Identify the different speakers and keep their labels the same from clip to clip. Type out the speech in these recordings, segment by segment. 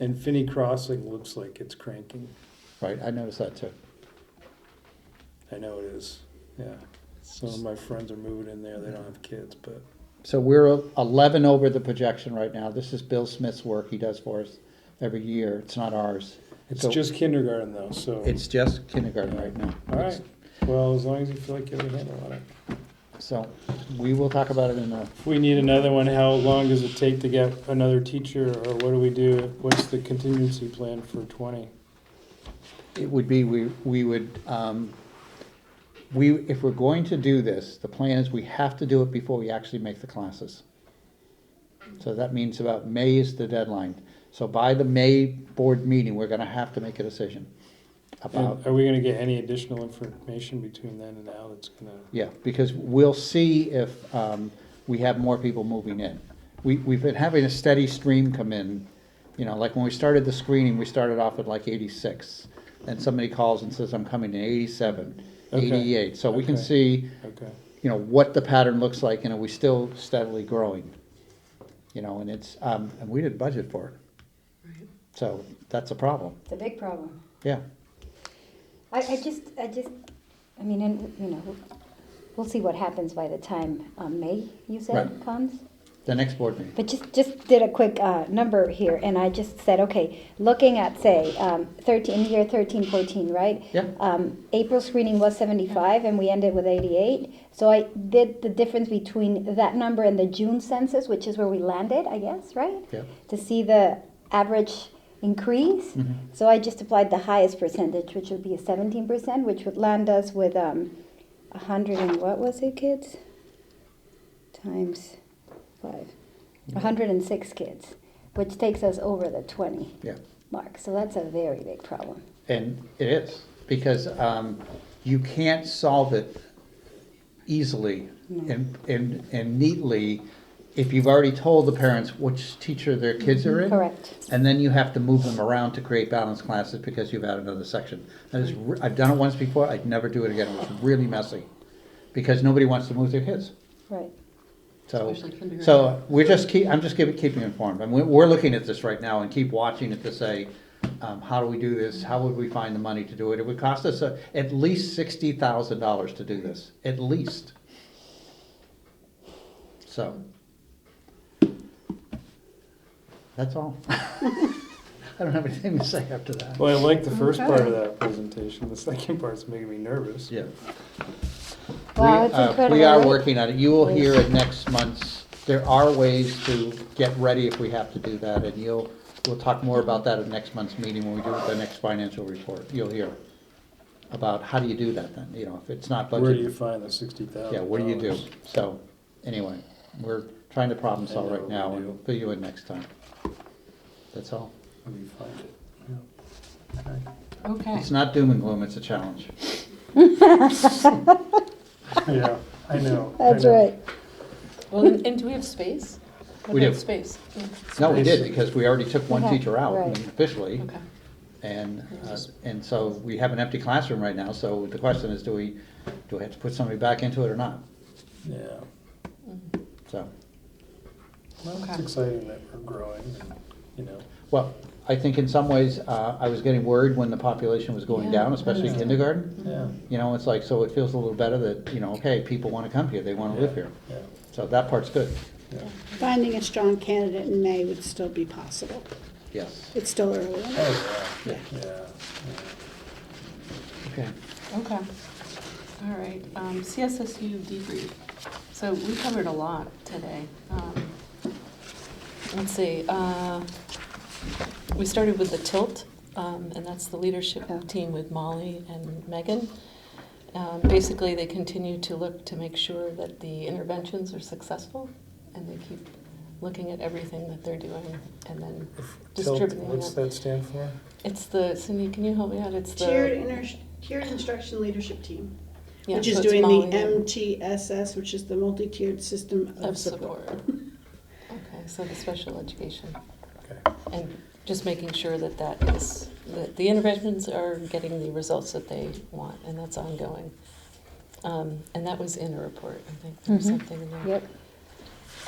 Speaker 1: And Finney Crossing looks like it's cranking.
Speaker 2: right, I noticed that too.
Speaker 1: I know it is, yeah. Some of my friends are moving in there, they don't have kids, but
Speaker 2: So we're eleven over the projection right now. This is Bill Smith's work he does for us every year. It's not ours.
Speaker 1: it's
Speaker 2: So-
Speaker 1: just kindergarten though, so.
Speaker 2: It's just kindergarten right now.
Speaker 1: Oh. All right, well, as long as you feel like you have a handle on it.
Speaker 2: So we will talk about it in a,
Speaker 1: If we need another one, how long does it take to get another teacher, or what do we do? What's the contingency plan for twenty?
Speaker 2: it would be, we, we would, um, we, if we're going to do this, the plan is we have to do it before we actually make the classes. So that means about May is the deadline. So by the May board meeting, we're gonna have to make a decision about
Speaker 1: And are we gonna get any additional information between then and now that's gonna?
Speaker 2: Yeah, because we'll see if um, we have more people moving in. We, we've been having a steady stream come in, you know, like when we started the screening, we started off at like eighty-six. And somebody calls and says, I'm coming in eighty-seven,
Speaker 1: Okay.
Speaker 2: eighty-eight, so we can
Speaker 1: Okay.
Speaker 2: see,
Speaker 1: Okay,
Speaker 2: you know, what the pattern looks like, and are we still steadily growing? You know, and it's, um, and we didn't budget for it. So that's a problem,
Speaker 3: It's a big problem.
Speaker 2: yeah.
Speaker 3: I, I just, I just, I mean, and, you know, we'll see what happens by the time um, May, you said,
Speaker 2: Right.
Speaker 3: comes.
Speaker 2: The next board meeting,
Speaker 3: But just, just did a quick uh, number here, and I just said, okay, looking at, say, um, 13, year 13, 14, right?
Speaker 2: Yeah.
Speaker 3: Um, April screening was 75, and we ended with 88. So I did the difference between that number and the June census, which is where we landed, I guess, right?
Speaker 2: yeah,
Speaker 3: to see the average increase.
Speaker 2: Mhm.
Speaker 3: So I just applied the highest percentage, which would be a seventeen percent, which would land us with um, a hundred and what was it, kids? Times five, a hundred and six kids, which takes us over the twenty
Speaker 2: yeah.
Speaker 3: mark. So that's a very big problem.
Speaker 2: And it is, because um, you can't solve it easily and, and, and neatly if you've already told the parents which teacher their kids are in.
Speaker 3: Correct.
Speaker 2: And then you have to move them around to create balanced classes because you've had another section. That is, re- I've done it once before, I'd never do it again, it was really messy, because nobody wants to move their kids.
Speaker 3: Right.
Speaker 2: So,
Speaker 4: Especially kindergarten.
Speaker 2: so we're just keep, I'm just keep keeping informed, and we're, we're looking at this right now and keep watching it to say, um, how do we do this, how would we find the money to do it, it would cost us uh, at least sixty thousand dollars to do this, at least. So. That's all. I don't have anything to say after that.
Speaker 1: well, I like the first part of that presentation, the second part's making me nervous.
Speaker 2: Yeah.
Speaker 3: Wow,
Speaker 2: We,
Speaker 3: it's
Speaker 2: uh,
Speaker 3: incredible.
Speaker 2: We are
Speaker 3: right?
Speaker 2: working on it. You will hear it next month's, there are ways to get ready if we have to do that, and you'll, we'll talk more about that at next month's meeting when we do the next financial report. You'll hear about how do you do that then, you know, if it's not budgeted.
Speaker 1: Where do you find the sixty thousand?
Speaker 2: Yeah, what do you do? So, anyway, we're trying to problem
Speaker 1: I
Speaker 2: solve
Speaker 1: know
Speaker 2: right
Speaker 1: we
Speaker 2: now,
Speaker 1: do.
Speaker 2: and fill you in next time. That's all.
Speaker 1: How do you find it? Yeah. Okay.
Speaker 4: Okay.
Speaker 2: It's not doom and gloom, it's a challenge.
Speaker 1: Yeah, I know. I
Speaker 3: That's
Speaker 1: know.
Speaker 3: right.
Speaker 4: Well, and and do we have space? What
Speaker 2: We
Speaker 4: about
Speaker 2: do.
Speaker 4: Space.
Speaker 2: No, we did, because we already took one
Speaker 3: Okay,
Speaker 2: teacher out
Speaker 3: right.
Speaker 2: officially.
Speaker 4: Okay.
Speaker 2: And, uh, and so we have an empty classroom right now, so the question is, do we, do we have to put somebody back into it or not?
Speaker 1: Yeah.
Speaker 4: Mm.
Speaker 2: So,
Speaker 1: Well, it's
Speaker 4: Okay.
Speaker 1: exciting that we're growing, and, you know.
Speaker 2: well, I think in some ways, uh, I was getting worried when the population was going
Speaker 4: Yeah.
Speaker 2: down, especially
Speaker 1: Yeah.
Speaker 2: kindergarten.
Speaker 1: Yeah.
Speaker 2: You know, it's like, so it feels a little better that, you know, okay, people wanna come here, they wanna live here.
Speaker 1: Yeah,
Speaker 2: So that part's good,
Speaker 1: yeah.
Speaker 5: Finding a strong candidate in May would still be possible.
Speaker 2: yes.
Speaker 5: It's still early.
Speaker 1: Oh, yeah.
Speaker 2: Yeah.
Speaker 1: Yeah. yeah.
Speaker 2: Okay.
Speaker 4: Okay. All right, um, CSSU debrief. So we covered a lot today. Um, Let's see, uh, we started with the tilt, um, and that's the leadership team with Molly and Megan. Um, Basically, they continue to look to make sure that the interventions are successful, and they keep looking at everything that they're doing, and then
Speaker 1: Tilt,
Speaker 4: distributing
Speaker 1: what's
Speaker 4: it.
Speaker 1: that stand for?
Speaker 4: It's the, Cindy, can you help me out? It's the.
Speaker 5: Tiered inter, tiered instruction leadership team,
Speaker 4: yeah,
Speaker 5: which
Speaker 4: so
Speaker 5: is
Speaker 4: it's
Speaker 5: doing
Speaker 4: Molly
Speaker 5: the
Speaker 4: and-
Speaker 5: MTSS, which is the multi-tiered system
Speaker 4: Of
Speaker 5: of
Speaker 4: support.
Speaker 5: support.
Speaker 4: Okay, so the special education,
Speaker 1: Okay.
Speaker 4: and just making sure that that is, that the interventions are getting the results that they want, and that's ongoing. Um, and that was in a report, I think, there was
Speaker 3: Mhm.
Speaker 4: something in there.
Speaker 3: Yep.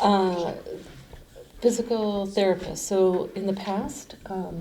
Speaker 4: Uh, Physical therapists, so in the past, um,